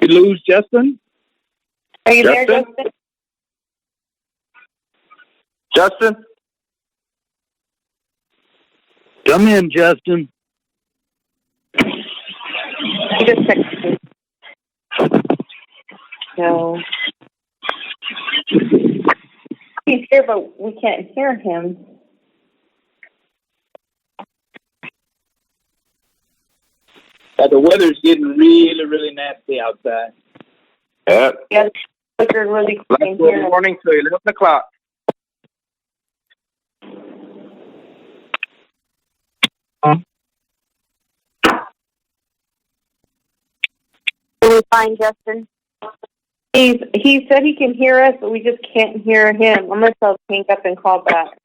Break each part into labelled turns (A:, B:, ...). A: we lose Justin?
B: Are you there,
A: Justin?
B: Justin?
A: Justin? Come in, Justin.
B: He just texted me. No. He's here, but we can't hear him.
C: Uh, the weather's getting really, really nasty outside.
A: Yeah.
B: Yes, but you're really
C: Like
B: can't
C: good
B: hear.
C: morning to 11 o'clock.
D: Can we find Justin?
B: He's, he said he can hear us, but we just can't hear him. I'm going to tell Pink up and call back.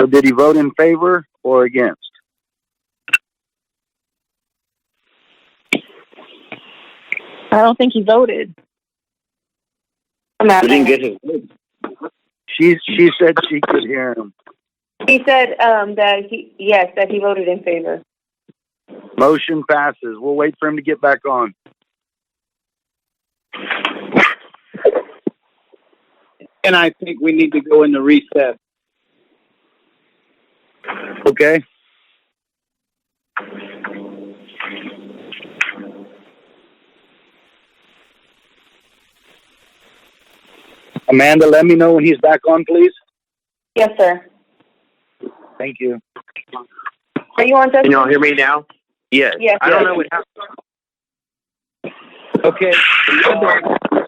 A: So did he vote in favor or against?
D: I don't think he voted.
B: I'm out.
A: get his vote. She she said she could hear him.
B: He said um, that he, yes, that he voted in favor.
A: Motion passes. We'll wait for him to get back on.
C: And I think we need to go into recess.
A: Okay. Amanda, let me know when he's back on, please.
B: Yes, sir.
A: Thank you.
B: Are you on, Justin?
E: Can y'all hear me now? Yes.
B: Yes.
E: I don't know what happened.
A: Okay. Uh,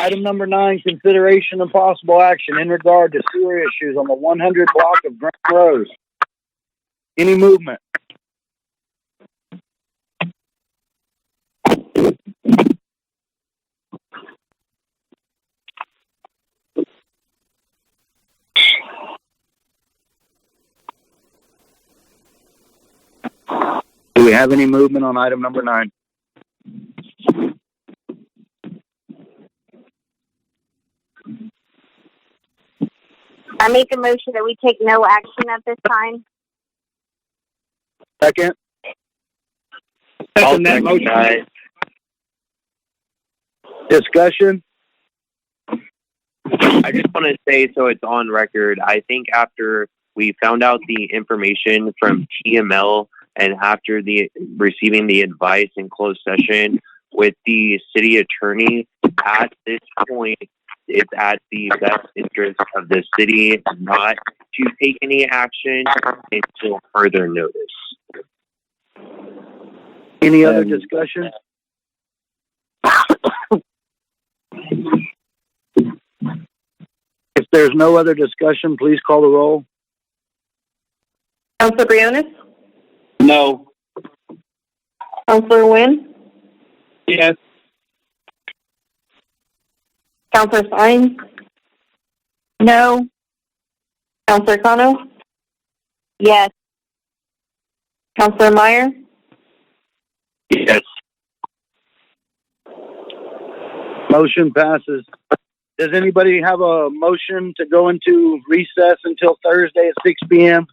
A: Item number nine, consideration and possible action in regard to sewer issues on the one hundred block of Grant Rose. Any movement? Do we have any movement on item number nine?
D: I make a motion that we take no action at this time.
A: Second.
C: Second that motion.
A: Discussion.
E: I just want to say, so it's on record. I think after we found out the information from TML, and after the receiving the advice in closed session with the city attorney, at this point, it's at the best interest of the city not to take any action until further notice.
A: Any other
C: Um,
A: discussion? If there's no other discussion, please call the roll.
B: Counselor Briones?
C: No.
B: Counselor Wynn?
C: Yes.
B: Counselor Fine?
D: No.
B: Counselor Kano?
D: Yes.
B: Counselor Meyer?
E: Yes.
A: Motion passes. Does anybody have a motion to go into recess until Thursday at six P M?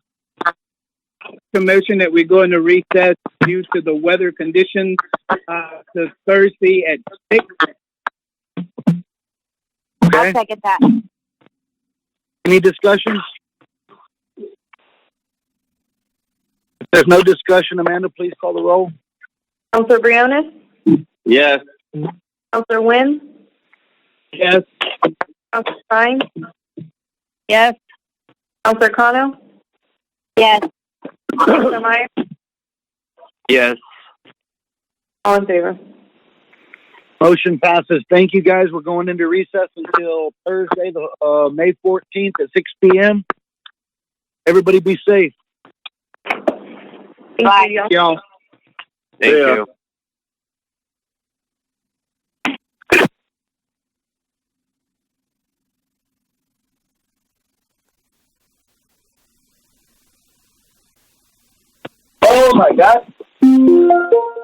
C: Commission that we go into recess due to the weather conditions uh, to Thursday at 6.
D: I'll
A: Okay.
D: second that.
A: Any discussions? If there's no discussion, Amanda, please call the roll.
B: Counselor Briones?
A: Yes.
B: Counselor Wynn?
C: Yes.
B: Counselor Fine?
D: Yes.
B: Counselor Kano?
D: Yes.
B: Counselor Meyer?
E: Yes.
B: All in favor.
A: Motion passes. Thank you, guys. We're going into recess until Thursday, the uh, May 14th at 6 p.m. Everybody be safe.
B: Thank
D: Bye.
B: you, y'all.
C: Y'all.
E: Thank
A: Yeah.
E: you.
A: Oh, my God.